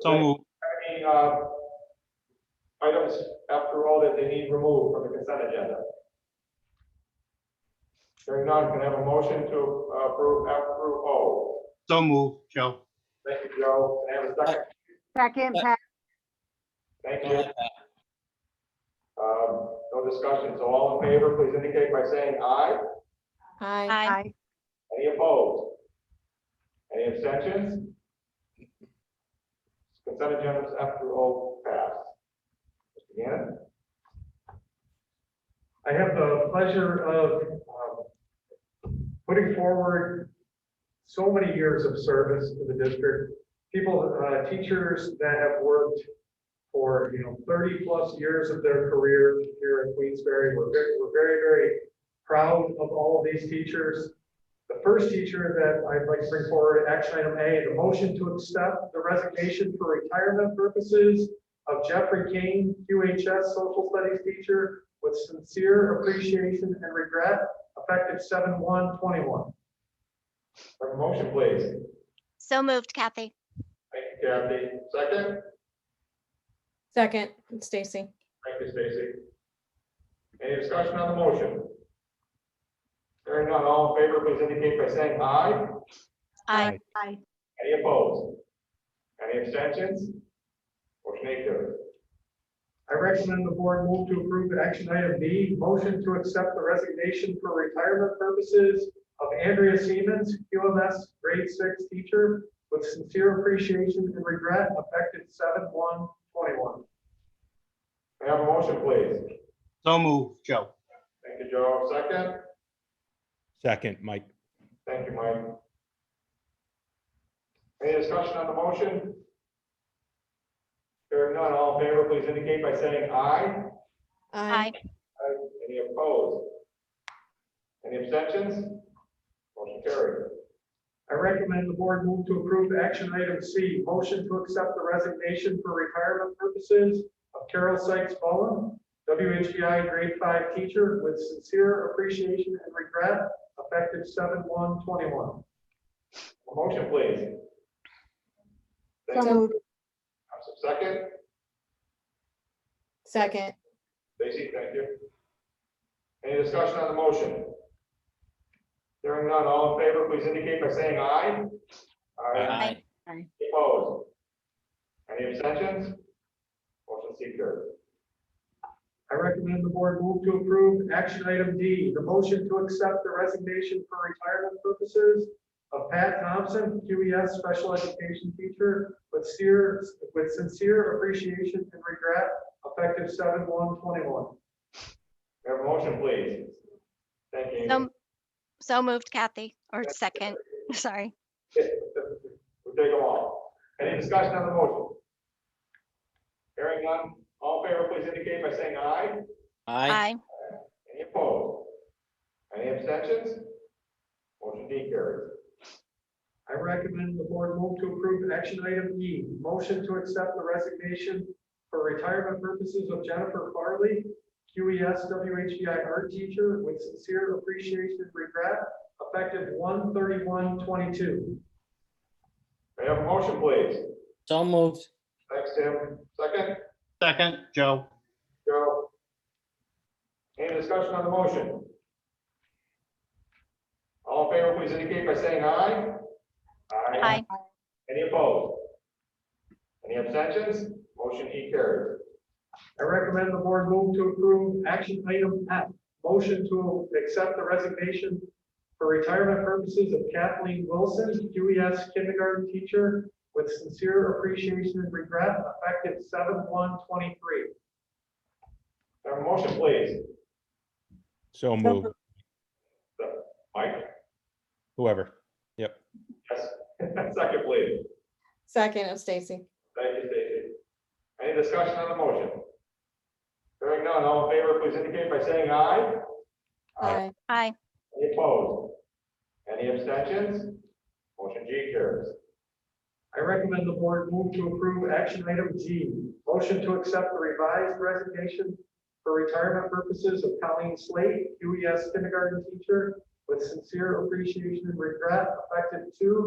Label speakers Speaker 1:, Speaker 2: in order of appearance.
Speaker 1: So moved.
Speaker 2: Any, uh, items after all that they need removed from the consent agenda? Hearing none, can I have a motion to uh, approve F through O?
Speaker 1: So moved, Joe.
Speaker 2: Thank you, Joe. Can I have a second?
Speaker 3: Second, Pat,
Speaker 2: Thank you. Um, no discussion. So all in favor, please indicate by saying aye.
Speaker 4: Aye.
Speaker 3: aye.
Speaker 2: Any opposed? Any abstentions? Consent agendas F through O pass. Mr. Gannon?
Speaker 5: I have the pleasure of um, putting forward so many years of service to the district. People, uh, teachers that have worked for, you know, thirty plus years of their career here at Queensberry. We're very, we're very, very proud of all of these teachers. The first teacher that I'd like to bring forward, action item A, the motion to accept the resignation for retirement purposes of Jeffrey King, QHS social studies teacher, with sincere appreciation and regret, effective seven one twenty-one.
Speaker 2: Have a motion, please.
Speaker 6: So moved, Kathy.
Speaker 2: Thank you, Kathy. Second?
Speaker 4: Second, Stacy.
Speaker 2: Thank you, Stacy. Any discussion on the motion? Hearing none, all in favor, please indicate by saying aye.
Speaker 6: Aye.
Speaker 3: Aye.
Speaker 2: Any opposed? Any abstentions? Motion eight carries.
Speaker 5: I recommend the board move to approve action item B, motion to accept the resignation for retirement purposes of Andrea Siemens, QMS grade six teacher, with sincere appreciation and regret, effective seven one twenty-one.
Speaker 2: May I have a motion, please?
Speaker 1: So moved, Joe.
Speaker 2: Thank you, Joe. Second?
Speaker 7: Second, Mike.
Speaker 2: Thank you, Mike. Any discussion on the motion? Hearing none, all in favor, please indicate by saying aye. Aye.
Speaker 6: Aye.
Speaker 2: Any opposed? Any abstentions? Motion carried.
Speaker 5: I recommend the board move to approve action item C, motion to accept the resignation for retirement purposes of Carol Sykes Bowen, WHBI grade five teacher with sincere appreciation and regret, effective seven one twenty-one.
Speaker 2: A Motion, please. Thank
Speaker 3: So
Speaker 2: you.
Speaker 3: moved.
Speaker 2: Second,
Speaker 4: Second,
Speaker 2: Stacy, thank you. Any discussion on the motion? Hearing none, all in favor, please indicate by saying aye. Aye.
Speaker 6: Aye.
Speaker 2: Opposed? Any abstentions? Motion C carried.
Speaker 5: I recommend the board move to approve action item D, the motion to accept the resignation for retirement purposes of Pat Thompson, QES special education teacher, with sincere, with sincere appreciation and regret, effective seven one twenty-one.
Speaker 2: May I Have a motion, please. Thank you.
Speaker 6: So, so moved, Kathy, or second, sorry.
Speaker 2: We'll take them all. Any discussion on the motion? Hearing none, all in favor, please indicate by saying aye.
Speaker 6: Aye.
Speaker 2: Any opposed? Any abstentions? Motion D carries.
Speaker 5: I recommend the board move to approve action item E, motion to accept the resignation for retirement purposes of Jennifer Farley, E QES WHBI art teacher with sincere appreciation and regret, effective 131-22.
Speaker 2: May I have a motion, please?
Speaker 8: So moved.
Speaker 2: Thanks, Tim. Second,
Speaker 1: Second, Joe.
Speaker 2: Joe. Any discussion on the motion? All in favor, please indicate by saying aye.
Speaker 6: Aye.
Speaker 2: Any opposed? Any abstentions? Motion E carries.
Speaker 5: I recommend the board move to approve action item F, motion to accept the resignation for retirement purposes of Kathleen Wilson, QES kindergarten teacher, with sincere appreciation and regret, effective seven one twenty-three.
Speaker 2: May I Have a motion, please.
Speaker 7: So moved,
Speaker 2: Mike?
Speaker 7: whoever.
Speaker 2: Yes. Second, please.
Speaker 4: second of Stacy.
Speaker 2: Thank you, Stacy. Any discussion on the motion? Hearing none, all in favor, please indicate by saying aye.
Speaker 4: Aye.
Speaker 6: Aye.
Speaker 2: Any opposed? Any abstentions? Motion G carries.
Speaker 5: I recommend the board move to approve action item G, motion to accept the revised resignation for retirement purposes of Colleen
Speaker 2: E
Speaker 5: Slate, UES kindergarten teacher, with sincere appreciation and regret, effective two